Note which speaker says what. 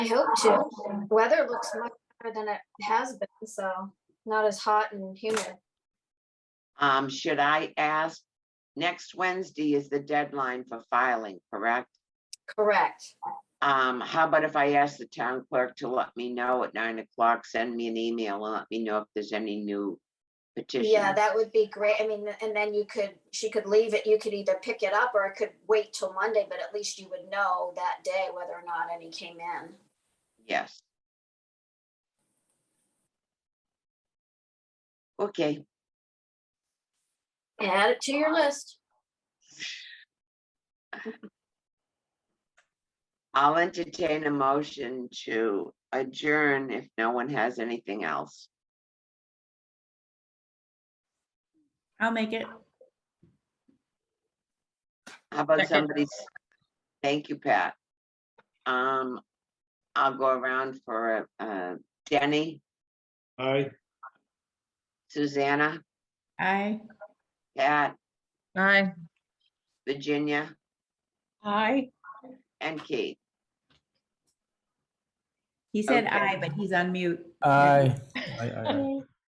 Speaker 1: hope to. Weather looks much better than it has been, so not as hot and humid.
Speaker 2: Um, should I ask, next Wednesday is the deadline for filing, correct?
Speaker 1: Correct.
Speaker 2: Um, how about if I ask the town clerk to let me know at nine o'clock, send me an email and let me know if there's any new petitions?
Speaker 1: Yeah, that would be great. I mean, and then you could, she could leave it, you could either pick it up or it could wait till Monday, but at least you would know that day whether or not any came in.
Speaker 2: Yes. Okay,
Speaker 1: Add it to your list.
Speaker 2: I'll entertain a motion to adjourn if no one has anything else.
Speaker 3: I'll make it.
Speaker 2: How about
Speaker 3: Second.
Speaker 2: somebody? s- Thank you, Pat. Um, I'll go around for, uh, Denny,
Speaker 4: Aye.
Speaker 2: Susanna,
Speaker 3: Aye.
Speaker 2: Pat,
Speaker 3: Aye.
Speaker 2: Virginia,
Speaker 3: Aye.
Speaker 2: and Keith.
Speaker 3: He said
Speaker 2: Okay.
Speaker 3: aye, but he's on mute.
Speaker 5: Aye.
Speaker 4: Aye, aye, aye.